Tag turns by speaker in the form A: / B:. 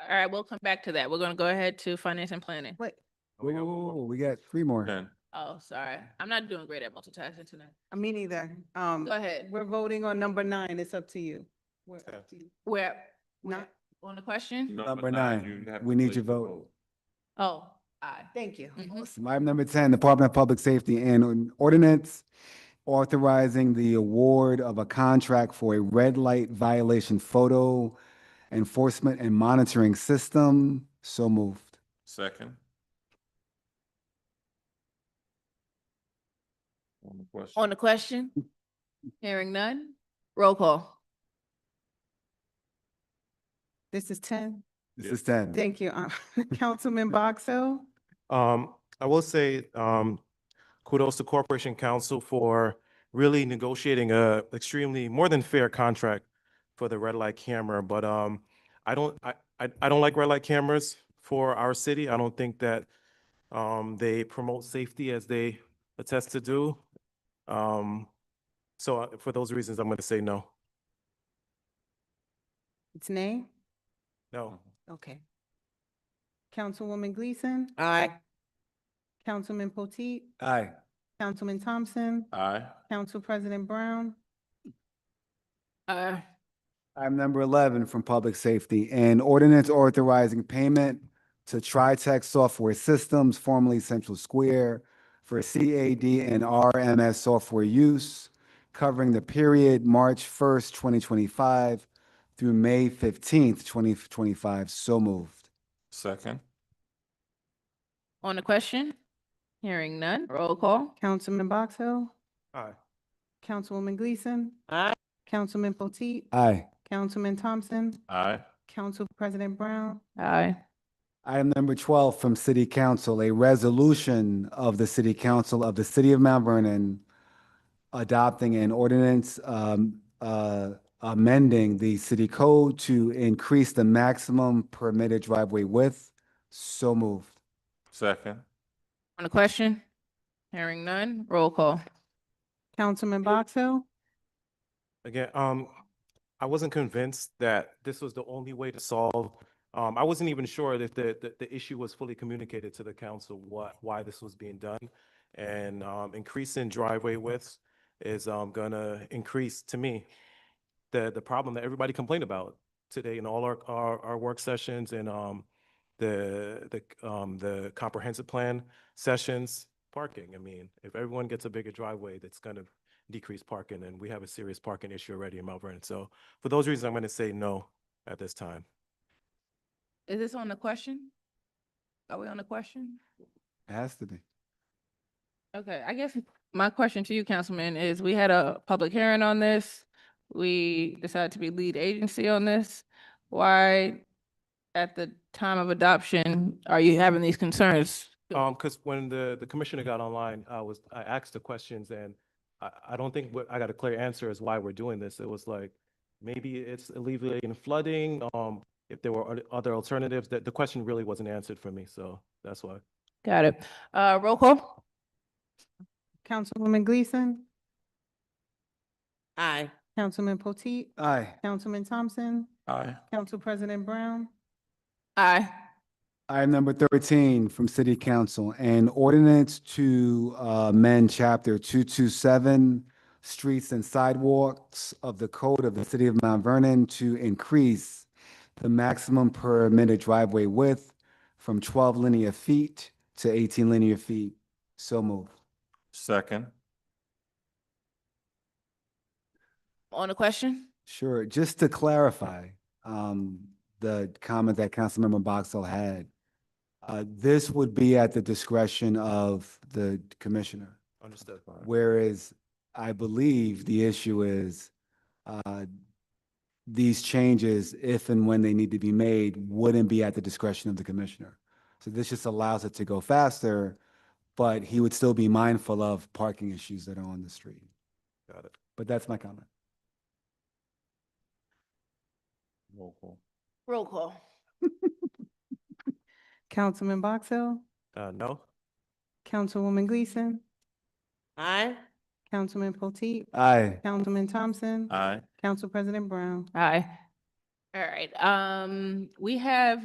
A: All right, we'll come back to that. We're gonna go ahead to finance and planning.
B: Wait,
C: Whoa, whoa, whoa, whoa, we got three more.
D: Then,
A: Oh, sorry. I'm not doing great at multitasking tonight.
B: uh, me neither.
A: Go
B: Um,
A: ahead.
B: we're voting on number nine. It's up to you. We're up
D: Okay.
B: to you.
A: Where,
B: Not,
A: on the question?
C: Number nine, we need your vote.
A: Oh, aye.
B: thank you.
A: Mhm.
C: Item number ten, Department of Public Safety and an Ordinance authorizing the award of a contract for a red light violation photo enforcement and monitoring system. So moved.
D: Second. On the question.
A: On the question? Hearing none? Roll call.
B: This is ten.
C: This is ten.
B: Thank you. Uh, Councilman Box Hill?
E: Um, I will say, um, kudos to Corporation Council for really negotiating a extremely more than fair contract for the red light camera, but, um, I don't, I, I, I don't like red light cameras for our city. I don't think that, um, they promote safety as they attest to do. Um, so uh, for those reasons, I'm gonna say no,
B: It's nay?
E: no.
B: Okay. Councilwoman Gleason?
F: Aye.
B: Councilman Potteet?
C: Aye.
B: Councilman Thompson?
D: Aye.
B: Council President Brown?
A: Uh,
C: Item number eleven from Public Safety, an ordinance authorizing payment to TriTech Software Systems, formerly Central Square, for CAD and RMS software use covering the period March first, twenty twenty-five through May fifteenth, twenty twenty-five. So moved.
D: Second.
A: on the question? Hearing none? Roll call.
B: Councilman Box Hill?
E: Aye.
B: Councilwoman Gleason?
F: Aye.
B: Councilman Potteet?
C: Aye.
B: Councilman Thompson?
D: Aye.
B: Council President Brown?
A: Aye.
C: Item number twelve from City Council, a resolution of the City Council of the City of Mount Vernon adopting an ordinance um, uh, amending the city code to increase the maximum permitted driveway width. So moved.
D: Second.
A: On the question? Hearing none? Roll call.
B: Councilman Box Hill?
E: Again, um, I wasn't convinced that this was the only way to solve. Um, I wasn't even sure that the, that the issue was fully communicated to the council, what, why this was being done. And, um, increasing driveway widths is, um, gonna increase, to me, the, the problem that everybody complained about today in all our, our, our work sessions and, um, the, the, um, the comprehensive plan sessions, parking. I mean, if everyone gets a bigger driveway, that's gonna decreased parking, and we have a serious parking issue already in Mount Vernon. So for those reasons, I'm going to say no at this time.
A: Is this on the question? Are we on the question?
C: It Has to be.
A: Okay, I guess my question to you, Councilman, is we had a public hearing on this. We decided to be lead agency on this. Why, at the time of adoption, are you having these concerns?
E: Um, because when the, the commissioner got online, I was, I asked the questions and I, I don't think what- I got a clear answer as why we're doing this. It was like, maybe it's alleviating flooding, um, if there were oth- other alternatives, that the question really wasn't answered for me, so that's why.
A: Got it. Uh, roll call?
B: Councilwoman Gleason,
F: Aye.
B: Councilman Potteet,
C: Aye.
B: Councilman Thompson,
D: Aye.
B: Council President Brown,
A: Aye.
C: Item number thirteen from City Council, an ordinance to uh, amend chapter two-two-seven, streets and sidewalks of the code of the city of Mount Vernon to increase the maximum permitted driveway width from twelve linear feet to eighteen linear feet. So moved.
D: Second.
A: On the question?
C: Sure, just to clarify, um, the comment that Councilmember Boxell had, uh, this would be at the discretion of the commissioner.
E: Understood.
C: Whereas I believe the issue is, uh, these changes, if and when they need to be made, wouldn't be at the discretion of the commissioner. So this just allows it to go faster, but he would still be mindful of parking issues that are on the street.
E: Got it.
C: But that's my comment.
D: Roll call.
A: Roll call.
B: Councilman Box Hill,
E: Uh, no?
B: Councilwoman Gleason,
F: Aye.
B: Councilman Potteet,
C: Aye.
B: Councilman Thompson,
D: Aye.
B: Council President Brown.
A: Aye. All right, um, we have